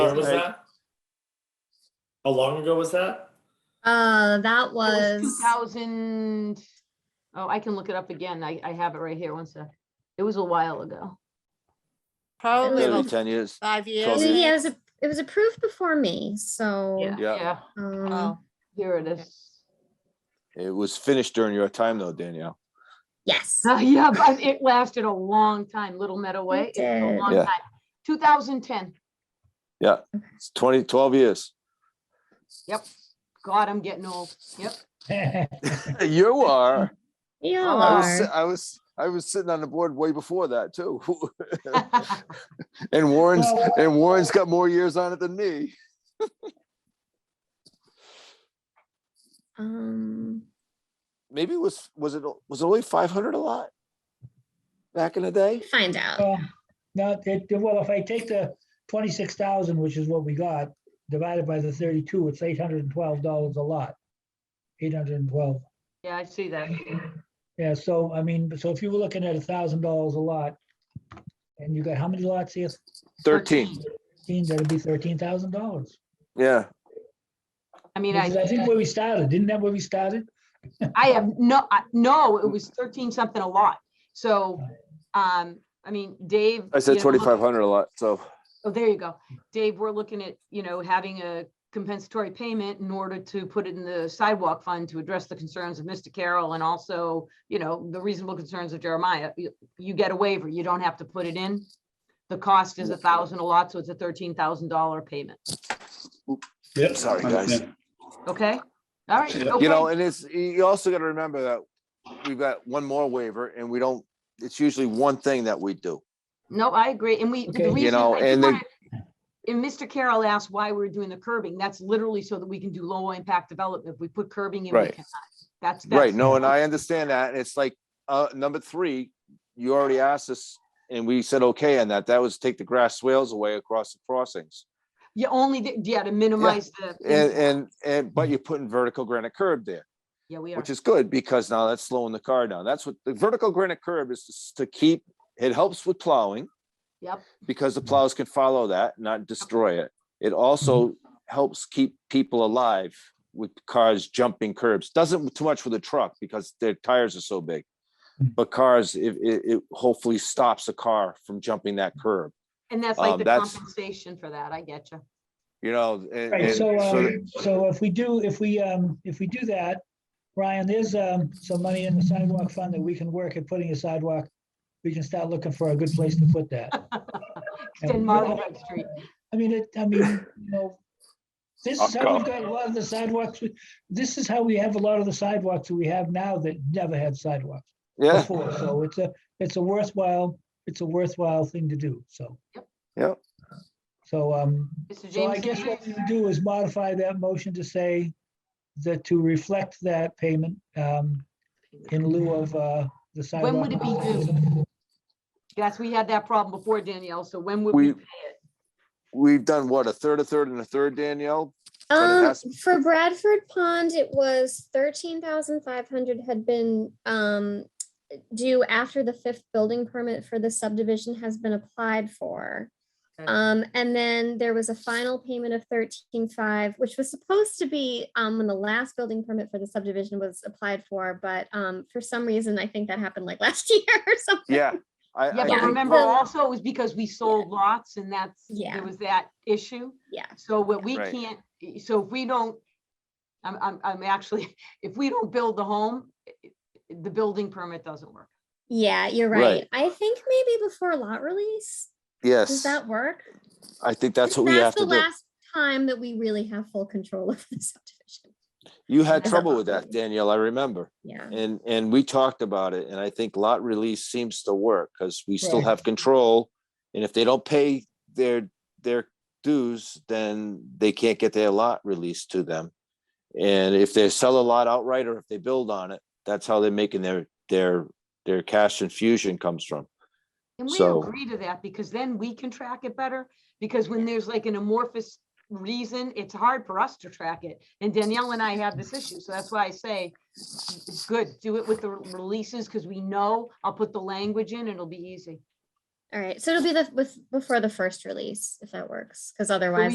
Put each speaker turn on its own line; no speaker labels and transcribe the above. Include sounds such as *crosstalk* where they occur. was
Right.
that? How long ago was that?
Uh, that was,
2000, oh, I can look it up again. I, I have it right here. One sec. It was a while ago.
Probably
Maybe
about
ten years.
five years.
Twelve
yeah, it was, a- it was approved before me, so.
Yeah.
Yeah,
um,
Oh,
here it
Okay.
is.
It was finished during your time though, Danielle.
Yes,
Uh, *laughs* Yeah, but it lasted a long time, Little Meadow Way. It's a
did.
long
Yeah.
time. 2010.
It's 20, 12 years.
Yep. God, I'm getting old. Yep.
*laughs*
*laughs*
You are.
we all
I was, si-
are.
I was, I was sitting on the board way before that too. *laughs* And Warren's, and Warren's got more years on it than me.
Um,
Maybe it was, was it, was it only five hundred a lot? Back in the day?
find out.
Well, Now, it, well, if I take the twenty-six thousand, which is what we got, divided by the thirty-two, it's eight hundred and twelve dollars a lot. Eight hundred and twelve.
Yeah, I see that.
Yeah, so I mean, so if you were looking at a thousand dollars a lot, and you got how many lots here?
Thirteen,
Fifteen, that'd be thirteen thousand dollars.
yeah.
I mean,
I
I,
think where we started, didn't that where we started?
I have no, I- no, it was 13 something a lot. So, um, I mean, Dave.
I said
you know, look-
twenty-five hundred a lot, so,
Oh, there you go. Dave, we're looking at, you know, having a compensatory payment in order to put it in the sidewalk fund to address the concerns of Mr. Carroll and also, you know, the reasonable concerns of Jeremiah. You- You get a waiver, you don't have to put it in. The cost is a thousand a lot, so it's a thirteen thousand dollar payment,
Yep.
Sorry, guys.
okay? All right.
You
you know,
okay.
and it's, you also gotta remember that we've got one more waiver and we don't, it's usually one thing that we do.
No, I agree, and we,
Okay.
the
You
reason.
know,
I do
and then-
wanna- And Mr. Carroll asked why we're doing the curbing, that's literally so that we can do low impact development, If we put curbing in, we
Right.
cannot, that's.
Right,
that's-
no, and I understand that, and it's like, uh, number three, you already asked us, and we said okay on that, that was take the grass swales away across the crossings.
You only, did- yeah, to minimize the.
And, and, and, but you're putting vertical granite curb there,
Yeah, we are.
which is good, because now that's slowing the car down, that's what, the vertical granite curb is just to keep, it helps with plowing.
Yep.
Because the plows can follow that, not destroy it, it also
Mm-hmm.
helps keep people alive with cars jumping curbs, doesn't too much with a truck, because their tires are so big.
Mm.
But cars, it, it, it hopefully stops a car from jumping that curb,
And that's
um,
like the
that's-
compensation for that. I *laughs* get you.
you know, and,
Right,
and
so,
so that-
um, so if we do, if we, um, if we do that, Ryan, there's, um, some money in the sidewalk fund that we can work at putting a sidewalk. We can start looking for a good place to
*laughs*
put that.
Extend Marlborough Street.
I mean, it, I mean, you know, this is
Okay.
how we've got a lot of the sidewalks. we- This is how we have a lot of the sidewalks that we have now that never had sidewalks
yeah,
before. So it's a, it's a worthwhile, it's a worthwhile thing to do, so.
Yep.
Yep.
So, um,
Mr.
so I guess
Jameson,
what we do is modify that motion to say that to reflect that payment um, in lieu of uh, the sidewalk.
When would it be due? yes, we had that problem before Danielle. So when would we
We- we've done what, a third, a third, and a third, Danielle? but it
Um,
has-
for Bradford Pond, it was thirteen thousand five hundred had been, um, due after the fifth building permit for the subdivision has been applied for.
Okay.
Um, and then there was a final payment of thirteen five, which was supposed to be, um, when the last building permit for the subdivision was applied for, but, um, for some reason, I think that happened like *laughs* last year or something.
Yeah, I, I
Yeah, but
think-
remember
Well-
also it was because we sold lots and that's,
Yeah.
there was that issue.
Yeah.
So what we
Right.
can't, so if we don't, I'm, I'm, I'm actually, *laughs* if we don't build the home, the building permit doesn't work.
Yeah, you're
Right.
right. I think maybe before lot release, does
yes,
that work?
I think that's what we have to
the
do.
last time that we really have full control *laughs* of the subdivision.
You had
Yeah.
trouble with that, Danielle, I remember.
Yeah.
And, and we talked about it, and I think lot release seems to work, because we still
Right.
have control. And if they don't pay their, their dues, then they can't get their lot released to them. And if they sell a lot outright, or if they build on it, that's how they're making their, their, their cash infusion comes from.
And we
So-
agree to that because then we can track it better, because when there's like an amorphous reason, it's hard for us to track it. And Danielle and I have this issue, so that's why I say, it's good, do it with the re- releases, because we know, I'll put the language in, it'll be easy.
All right. So it'll be the with before the first release, if that works, because otherwise